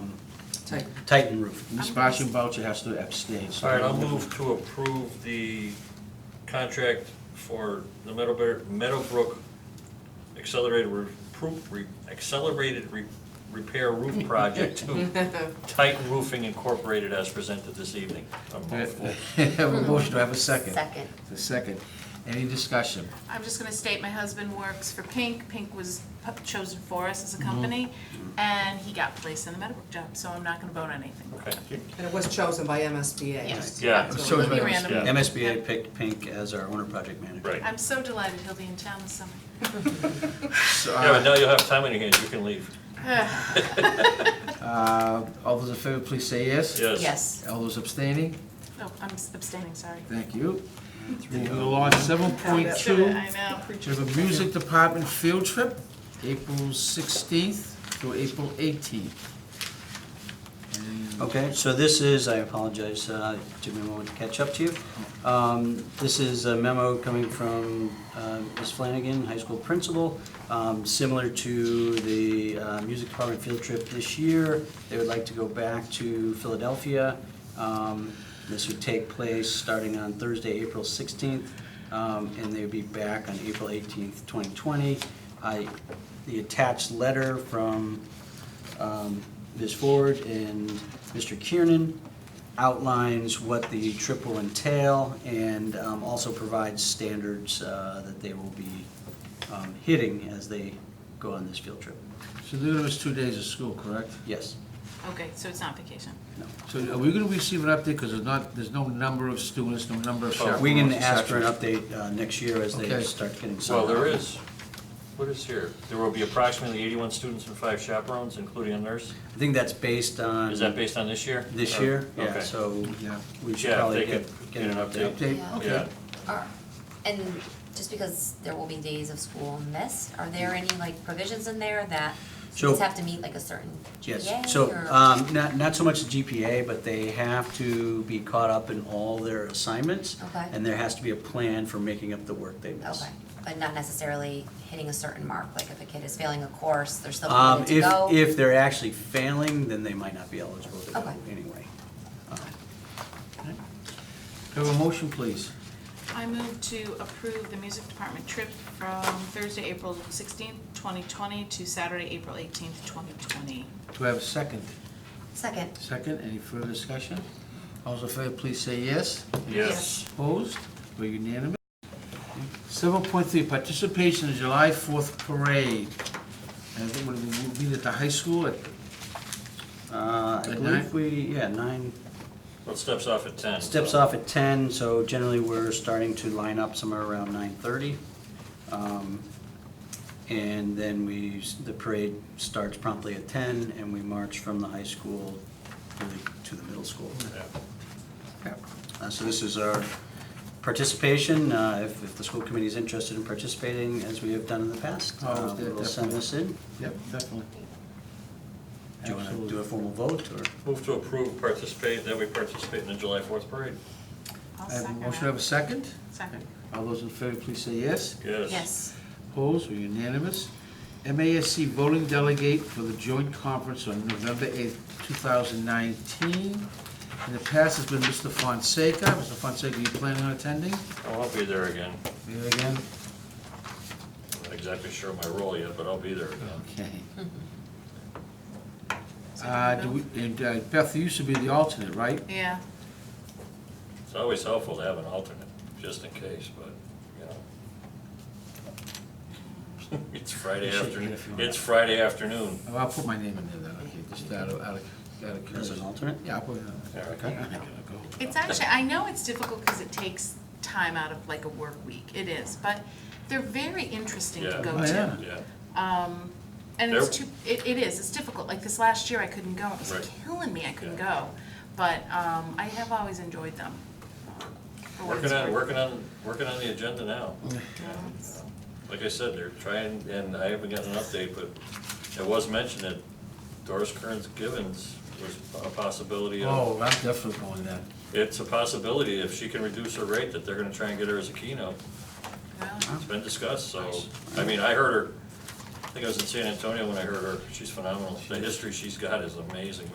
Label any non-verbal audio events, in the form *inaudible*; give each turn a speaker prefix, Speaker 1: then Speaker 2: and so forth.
Speaker 1: Titan.
Speaker 2: Titan Roof.
Speaker 3: Ms. Basham Boucher has to abstain. so-
Speaker 4: All right, I'll move to approve the contract for the Meadowbrook, Meadowbrook Accelerated, Re- Pro- Re- Accelerated Re- Repair Roof Project to Titan Roofing Incorporated as presented this evening.
Speaker 2: Uh,
Speaker 4: I'm
Speaker 3: All right,
Speaker 4: hopeful.
Speaker 3: Have a motion, do I have a second?
Speaker 5: Second.
Speaker 3: The second. Any discussion?
Speaker 6: I'm just gonna state, my husband works for Pink, Pink was pu- chosen for us
Speaker 3: Mm-hmm.
Speaker 6: as a company, and he got placed in the Meadowbrook job, so I'm not gonna vote on anything.
Speaker 4: Okay.
Speaker 1: And it was chosen by MSBA.
Speaker 5: Yes.
Speaker 4: Yeah.
Speaker 1: So-
Speaker 3: So is my-
Speaker 6: Be random.
Speaker 3: yeah.
Speaker 2: MSBA picked Pink as our owner project manager.
Speaker 4: Right.
Speaker 6: I'm so delighted he'll be in town this summer. *sighs*
Speaker 3: So,
Speaker 2: uh,
Speaker 4: Yeah, but now you'll have time on your hands, you can leave.
Speaker 6: Oh,
Speaker 3: uh, All those in favor, please say yes.
Speaker 4: Yes.
Speaker 5: Yes.
Speaker 3: All those abstaining?
Speaker 6: Oh, I'm abstaining, sorry.
Speaker 3: Thank you. Moving along, seven point
Speaker 6: Sure,
Speaker 3: two.
Speaker 6: I know.
Speaker 3: We have a music department field trip, April sixteenth through April eighteenth.
Speaker 2: Okay, so this is, I apologize, uh, took me a moment to catch up to you. Um, This is a memo coming from uh, Ms. Flanagan, high school principal, Um, similar to the uh, music department field trip this year. They would like to go back to Philadelphia. Um, This would take place starting on Thursday, April 16th, um, and they would be back on April 18th, 2020. I, the attached letter from um, Ms. Ford and Mr. Kiernan outlines what the trip will entail and um, also provides standards uh, that they will be um, hitting as they go on this field trip.
Speaker 3: So they're gonna miss two days of school, correct?
Speaker 2: Yes,
Speaker 6: Okay, so it's not vacation.
Speaker 2: no.
Speaker 3: So are we gonna receive an update, because there's not, there's no number of students, no number of chaperones?
Speaker 2: Oh, We can
Speaker 3: et
Speaker 2: ask for an
Speaker 3: cetera.
Speaker 2: update uh, next year as they
Speaker 3: Okay.
Speaker 2: start getting
Speaker 4: Well,
Speaker 2: some.
Speaker 4: there is, what is here? There will be approximately 81 students and five chaperones, including a nurse.
Speaker 2: I think that's based on.
Speaker 4: Is that based on this year?
Speaker 2: Mm-hmm. This
Speaker 4: Or-
Speaker 2: year, yeah,
Speaker 4: Okay.
Speaker 2: so
Speaker 3: Yeah.
Speaker 2: we should
Speaker 4: Yeah,
Speaker 2: probably
Speaker 4: they
Speaker 2: get,
Speaker 4: could
Speaker 2: get an update.
Speaker 3: Update,
Speaker 5: Yeah.
Speaker 3: okay.
Speaker 4: Yeah.
Speaker 5: Are- And just because there will be days of school missed, are there any like provisions in there that students
Speaker 2: So-
Speaker 5: have to meet like a certain GPA or?
Speaker 2: Yes, so, um, not, not so much the GPA, but they have to be caught up in all their assignments.
Speaker 5: Okay.
Speaker 2: And there has to be a plan for making up the work they miss.
Speaker 5: Okay, but not necessarily hitting a certain mark, like if a kid is failing a course, they're still
Speaker 2: Um,
Speaker 5: permitted to
Speaker 2: if,
Speaker 5: go?
Speaker 2: if they're actually failing, then they might not be eligible to go
Speaker 5: Okay.
Speaker 2: anyway. Um,
Speaker 3: Have a motion, please.
Speaker 6: I move to approve the music department trip from Thursday, April sixteenth, twenty twenty, to Saturday, April eighteenth, twenty twenty.
Speaker 3: Do I have a second?
Speaker 5: Second,
Speaker 3: Second, any further discussion? All those in favor, please say yes.
Speaker 4: Yes.
Speaker 3: Opposed? We're unanimous. Seven point three, participation in July fourth parade. And it would would be at the high school at
Speaker 2: Uh, I
Speaker 3: At
Speaker 2: believe
Speaker 3: nine?
Speaker 2: we, yeah, nine,
Speaker 4: Well, it steps off at 10.
Speaker 2: steps
Speaker 4: so-
Speaker 2: off at ten, so generally we're starting to line up somewhere around nine thirty. Um, And then we, s- the parade starts promptly at ten, and we march from the high school really to the middle school.
Speaker 4: Yeah.
Speaker 2: Uh, So this is our participation, uh, if, if the school committee is interested in participating, as we have done in the past.
Speaker 3: Oh,
Speaker 2: uh,
Speaker 3: yeah,
Speaker 2: We'll send
Speaker 3: definitely.
Speaker 2: this in.
Speaker 3: Yep, definitely.
Speaker 2: Do you want to do a
Speaker 3: Absolutely.
Speaker 2: formal vote, or?
Speaker 4: Move to approve, participate, that we participate in the July 4th parade.
Speaker 6: I'll
Speaker 3: I have a
Speaker 6: second
Speaker 3: motion, I have a
Speaker 6: that.
Speaker 3: second.
Speaker 6: Second.
Speaker 3: All those in favor, please say yes.
Speaker 4: Yes.
Speaker 5: yes,
Speaker 3: Opposed, we're unanimous. MASC voting delegate for the joint conference on November eighth, two thousand nineteen. In the past, it's been Mr. Fonseca. Mr. Fonseca, you planning on attending?
Speaker 4: Oh, I'll be there again.
Speaker 3: Here again?
Speaker 4: I'm not exactly sure of my role yet, but I'll be there again.
Speaker 3: Okay.
Speaker 6: Second
Speaker 3: Uh,
Speaker 6: vote.
Speaker 3: do we, and uh, Beth, you used to be the alternate, right?
Speaker 6: Yeah,
Speaker 4: It's always helpful to have an alternate, just in case, but, you know. *laughs* It's Friday
Speaker 3: You should
Speaker 4: afternoon,
Speaker 3: get a few
Speaker 4: it's Friday afternoon.
Speaker 3: Oh, I'll put my name in there then, okay, just out of, out of, out of
Speaker 2: As an
Speaker 3: curiosity.
Speaker 2: alternate?
Speaker 3: Yeah, I'll put it on.
Speaker 4: Yeah,
Speaker 3: I'm not gonna go.
Speaker 6: it's actually, I know it's difficult because it takes time out of like a work week, it is, but they're very interesting to
Speaker 4: Yeah.
Speaker 6: go
Speaker 3: Oh,
Speaker 6: to.
Speaker 3: yeah.
Speaker 4: Yeah,
Speaker 6: Um, and it's
Speaker 4: There-
Speaker 6: too, it, it is, it's difficult, like this last year I couldn't go, it was
Speaker 4: Right.
Speaker 6: killing me, I couldn't
Speaker 4: Yeah.
Speaker 6: go. But, um, I have always enjoyed them. um, for what
Speaker 4: working
Speaker 6: it's
Speaker 4: on,
Speaker 6: worth.
Speaker 4: working on, working on the
Speaker 3: *laughs*
Speaker 4: agenda now. Yeah. Like I said, they're trying, and I haven't gotten an update, but it was mentioned that Doris Kearns Givens was a possibility of
Speaker 3: Oh, I'm definitely going then.
Speaker 4: It's a possibility, if she can reduce her rate, that they're gonna try and get her as a keynote.
Speaker 6: Well,
Speaker 4: It's been discussed, so, I mean, I heard her, I think I was in San Antonio when I heard her, she's phenomenal. The history she's got is amazing.